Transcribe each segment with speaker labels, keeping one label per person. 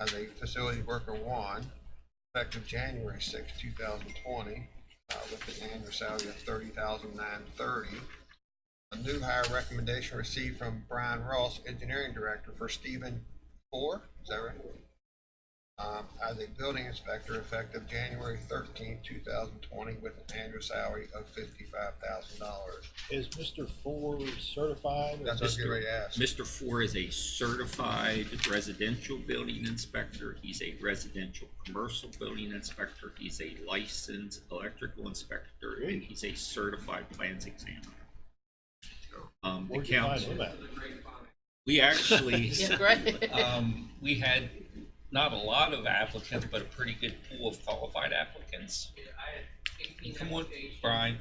Speaker 1: as a facility worker one, effective January sixth, two thousand twenty, uh, with an annual salary of thirty thousand nine thirty. A new hire recommendation received from Brian Ross, Engineering Director, for Stephen Four, is that right? Um, as a building inspector effective January thirteenth, two thousand twenty, with an annual salary of fifty-five thousand dollars.
Speaker 2: Is Mr. Ford certified? or-
Speaker 1: That's what I was getting ready to ask.
Speaker 3: Mr. Four is a certified residential building inspector. He's a residential commercial building inspector. He's a licensed electrical inspector, and he's a certified plans examiner. Um, the
Speaker 2: Where'd you find him
Speaker 3: council,
Speaker 2: at?
Speaker 3: we actually,
Speaker 4: Yeah, great.
Speaker 3: um, we had not a lot of applicants, but a pretty good pool of qualified applicants. You Come on, Brian,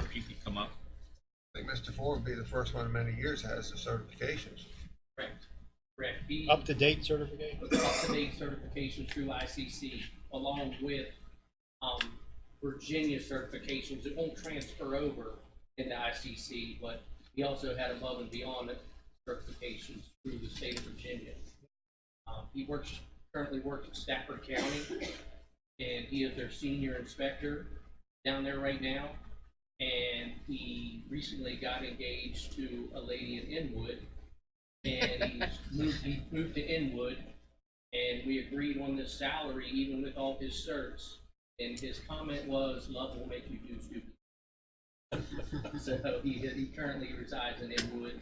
Speaker 3: if you could come up.
Speaker 1: I think Mr. Ford would be the first one in many years that has the certifications.
Speaker 5: Correct. Correct. He
Speaker 2: Up to date certification?
Speaker 5: up-to-date certification through ICC along with, um, Virginia certifications. It won't transfer over into ICC, but he also had above and beyond certifications through the state of Virginia. Um, he works, currently works in Stafford County, and he is their senior inspector down there right now. And he recently got engaged to a lady in Inwood, and he's moved, he moved to Inwood, and we agreed on this salary even with all his certs. And his comment was, love will make you do stupid. So he, he currently resides in Inwood,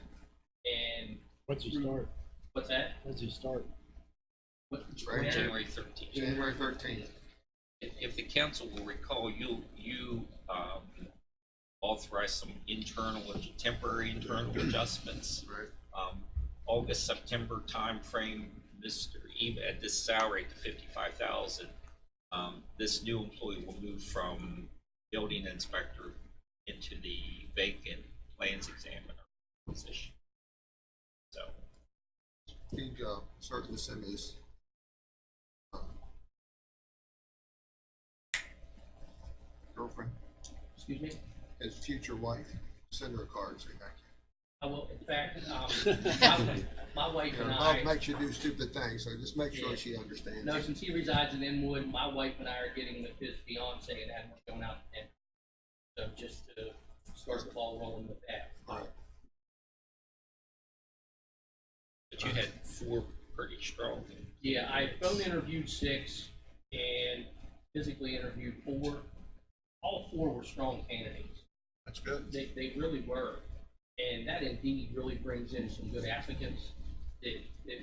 Speaker 5: and,
Speaker 2: What's he start?
Speaker 5: what's that?
Speaker 2: What's he start?
Speaker 5: What-
Speaker 1: Right.
Speaker 5: where-
Speaker 3: January thirteenth.
Speaker 1: January thirteenth.
Speaker 3: If, if the council will recall, you, you, um, authorized some internal, temporary internal adjustments.
Speaker 1: Right.
Speaker 3: Um, August, September timeframe, Mr., even at this salary to fifty-five thousand, um, this new employee will move from building inspector into the vacant plans examiner position. So,
Speaker 1: He, uh, certainly sent his. Girlfriend,
Speaker 5: Excuse me?
Speaker 1: his future wife, send her a card, say thank
Speaker 5: I will, in fact, um, my- my wife
Speaker 1: you.
Speaker 5: and
Speaker 1: Love
Speaker 5: I,
Speaker 1: makes you do stupid things, so just make sure she understands.
Speaker 5: no, since he resides in Inwood, my wife and I are getting with his fiance and that, we're going out and, so just to start the ball rolling with that.
Speaker 1: Alright.
Speaker 3: but you had four pretty strong.
Speaker 5: Yeah, I phone interviewed six and physically interviewed four. All four were strong candidates.
Speaker 1: That's good.
Speaker 5: They, they really were. And that indeed really brings in some good applicants that, that,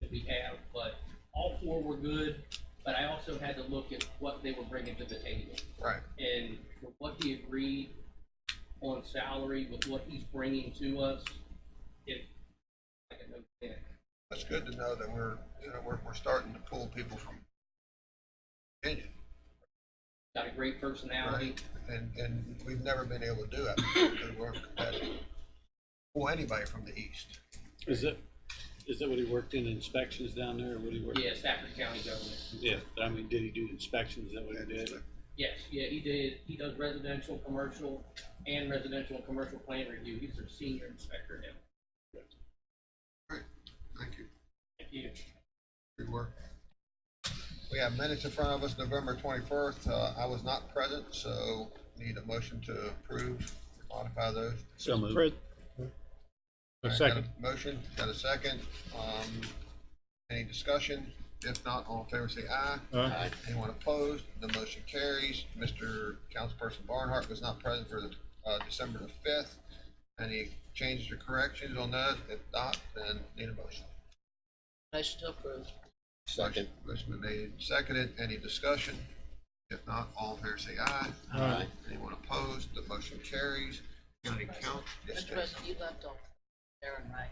Speaker 5: that we have. But all four were good, but I also had to look at what they were bringing to the table.
Speaker 1: Right.
Speaker 5: And with what he agreed on salary, with what he's bringing to us, it, I can understand.
Speaker 1: That's good to know that we're, you know, we're, we're starting to pull people from Virginia,
Speaker 5: Got a great personality.
Speaker 1: right? And, and we've never been able to do that. because We're competitive. Pull anybody from the east.
Speaker 6: Is that, is that what he worked in inspections down there, or what he worked?
Speaker 5: Yeah, Stafford County government.
Speaker 6: Yeah, I mean, did he do inspections, is that what he did?
Speaker 5: Yes, yeah, he did, he does residential, commercial, and residential and commercial plan review, he's our senior inspector now.
Speaker 1: Thank you.
Speaker 5: Thank you.
Speaker 1: Good work. We have minutes in front of us, November twenty-first. Uh, I was not present, so need a motion to approve, modify those.
Speaker 6: So moved.
Speaker 2: Fred?
Speaker 1: All
Speaker 2: A
Speaker 1: right, got
Speaker 2: second.
Speaker 1: Motion, got a second. Um, any discussion? If not, all in favor say aye.
Speaker 2: Aye.
Speaker 1: Anyone opposed? The motion carries. Mr. Councilperson Barnhart was not present for the, uh, December the fifth. Any changes or corrections on that? If not, then need a motion.
Speaker 4: Motion to approve.
Speaker 1: Second. Motion been made and seconded. Any discussion? If not, all in favor say aye. Aye. Anyone opposed? The motion carries. County count. yes,
Speaker 4: Mr.
Speaker 1: yes.
Speaker 4: President, you left off Aaron Wright.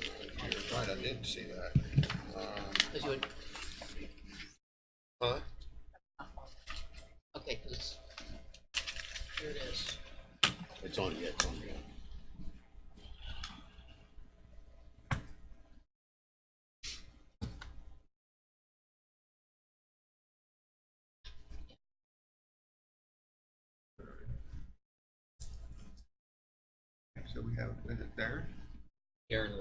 Speaker 1: You're Right, I didn't see that. Um,
Speaker 4: Because you would,
Speaker 1: Huh?
Speaker 4: okay, because here it is.
Speaker 7: It's on, yeah, it's on. yeah.
Speaker 1: So we have, is it Darren?
Speaker 3: Aaron